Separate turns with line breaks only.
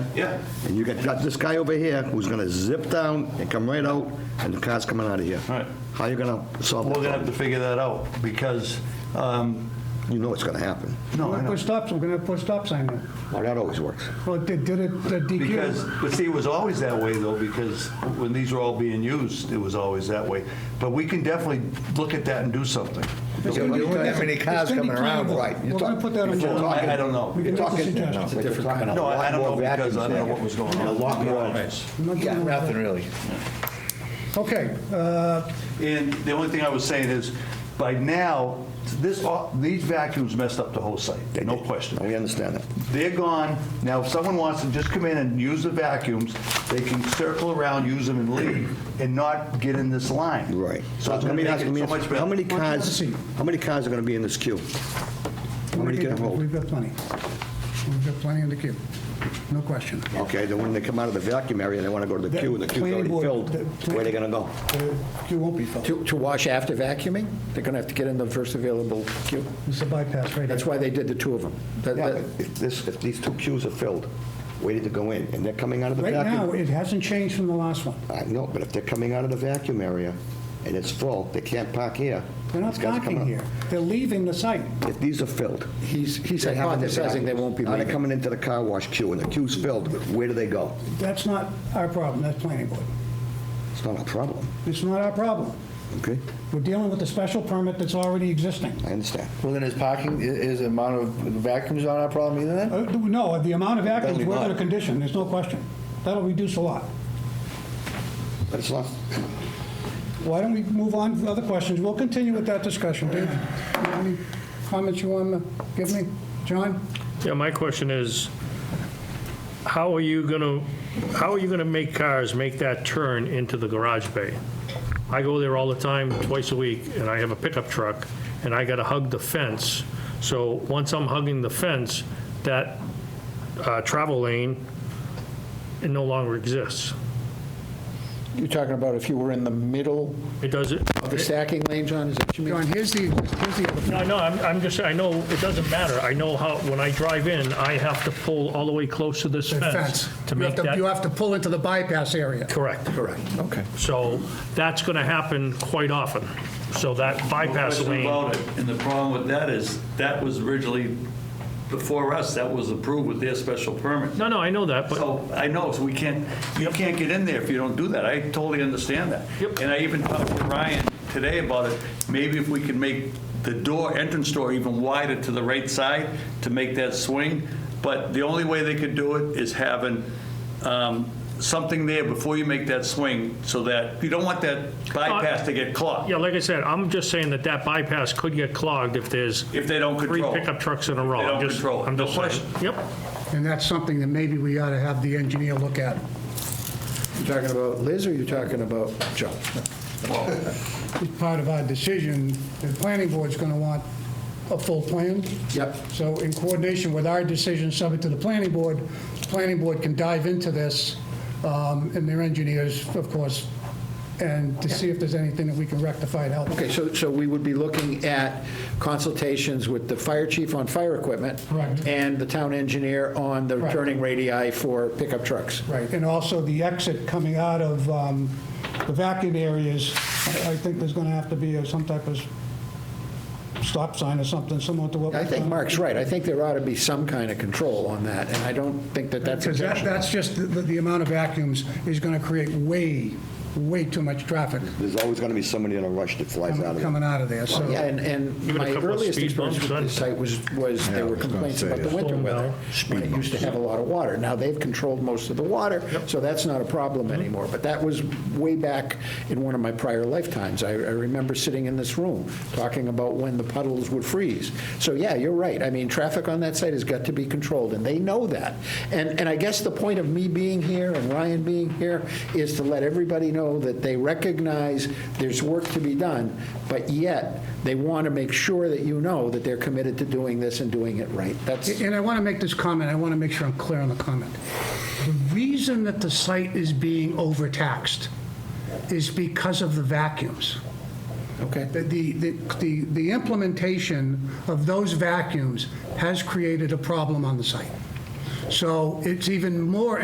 Yeah.
And you got got this guy over here who's gonna zip down and come right out, and the car's coming out of here.
Right.
How you gonna solve
We're
that
gonna have to
problem?
figure that out, because, um,
You know it's gonna happen.
no,
We're
I
gonna
know.
put stops, we're gonna put stop sign there.
Well, that always works.
Well, they did it, the
Because,
DQ.
but see, it was always that way though, because when these were all being used, it was always that way. But we can definitely look at that and do something.
There wouldn't that many cars
It's gonna be
coming around,
plannable.
right? You're
We're gonna
talk-
put that on.
you're
board.
talking-
I don't know.
We can
You're
make a
talking-
suggestion.
no,
It's a
you're
different
talking a
No, I- I
lot
don't
more
know because
vacuums
I don't know
there.
what was going on.
A lot more.
I'm not
Yeah,
gonna-
nothing really.
Okay, uh,
And the only thing I was saying is, by now, this, these vacuums messed up the whole site, no question.
Now, we understand that.
They're gone. Now, if someone wants to just come in and use the vacuums, they can circle around, use them and leave, and not get in this line.
Right.
So it's
Let
gonna
me
make
ask-
it
let me
so
ask-
much better.
How many
Why don't you have a
cars,
seat?
how many cars are gonna be in this queue? How many can hold?
We've got plenty. We've got plenty in the queue, no question.
Okay, then when they come out of the vacuum area, they wanna go to the
The
queue, and the queue's
planning
already filled,
board- the
where are
plan-
they gonna go?
The queue won't be filled.
To to wash after vacuuming, they're going to have to get in the first available queue.
It's a bypass right
That's
here.
why they did the two of them. That-
Yeah,
that-
but if this, if these two queues are filled, waiting to go in, and they're coming out of the
Right now,
vacuum.
it hasn't changed from the last one.
I know, but if they're coming out of the vacuum area and it's full, they can't park here.
They're not
These guys are
parking
coming
here.
out.
They're leaving the site.
If these are filled.
He's he's
they have in the
hypothesizing they
vacuum.
won't be
Now they're
leaving.
coming into the car wash queue, and the queue's filled, where do they go?
That's not our problem, that's planning board.
It's not a problem,
It's not our problem.
okay?
We're dealing with a special permit that's already existing.
I understand.
Well, then is parking, i- is the amount of vacuums not our problem either then?
Uh, No, the amount of vacuums,
Definitely
we're going to
not.
condition, there's no question. That'll reduce a lot.
But it's not,
Why don't we move on to other questions? We'll continue with that discussion, Dave. Any comments you want to give me? John?
Yeah, my question is, how are you gonna, how are you gonna make cars make that turn into the garage bay? I go there all the time, twice a week, and I have a pickup truck, and I gotta hug the fence. So once I'm hugging the fence, that uh, travel lane, it no longer exists.
You're talking about if you were in the middle
It doesn't,
of the stacking lane, John, is that what you mean?
John, here's the, here's the,
No, no, I'm, I'm just, I know, it doesn't matter. I know how, when I drive in, I have to pull all the way close to this
the
fence
fence.
to
You have
make
to- You
that.
have to pull into the bypass area.
Correct.
Correct, okay.
So that's going to happen quite often. So that bypass
question
lane,
about it, and the problem with that is, that was originally, before us, that was approved with their special permit.
no, no, I know that, but,
So, I know, so we can't, you can't get in there if you don't do that, I totally understand that.
Yep.
And I even talked to Ryan today about it, maybe if we can make the door, entrance door even wider to the right side to make that swing, but the only way they could do it is having um, something there before you make that swing, so that, you don't want that bypass to get clogged.
yeah, like I said, I'm just saying that that bypass could get clogged if there's
If they don't
three
control. it.
pickup trucks in a row.
They don't
I'm just-
control it.
I'm
No
just saying.
question.
Yep.
And that's something that maybe we ought to have the engineer look at.
You're talking about Liz, or you're talking about Joe?
It's part of our decision. The planning board's going to want a full plan.
Yep.
So in coordination with our decision subject to the planning board, the planning board can dive into this, um, and their engineers, of course, and to see if there's anything that we can rectify and help.
Okay, so, so we would be looking at consultations with the fire chief on fire equipment.
Correct.
And the town engineer on the
Correct.
turning radii for pickup trucks.
Right, and also the exit coming out of um, the vacuum areas, I I think there's going to have to be a- some type of stop sign or something similar to what.
I
we've
think
done.
Mark's right. I think there ought to be some kind of control on that, and I don't think that that's
Because that,
objectionable.
that's just, the, the amount of vacuums is going to create way, way too much traffic
there's always gonna be somebody in a rush that flies out of
coming
it.
out of there, so.
Yeah, and, and
Even a
my
couple of
earliest
speed
experience
bumps,
with
huh?
this site was, was there were complaints about the winter
Storm
weather.
down.
When it used to have a lot of water. Now, they've controlled most of the water, so that's not a problem anymore. But that was way back in one of my prior lifetimes. I, I remember sitting in this room, talking about when the puddles would freeze. So, yeah, you're right. I mean, traffic on that site has got to be controlled, and they know that. And, and I guess the point of me being here and Ryan being here is to let everybody know that they recognize there's work to be done, but yet, they want to make sure that you know that they're committed to doing this and doing it right. That's,
And I want to make this comment, I want to make sure I'm clear on the comment. The reason that the site is being overtaxed is because of the vacuums.
okay.
The, the, the, the implementation of those vacuums has created a problem on the site. So it's even more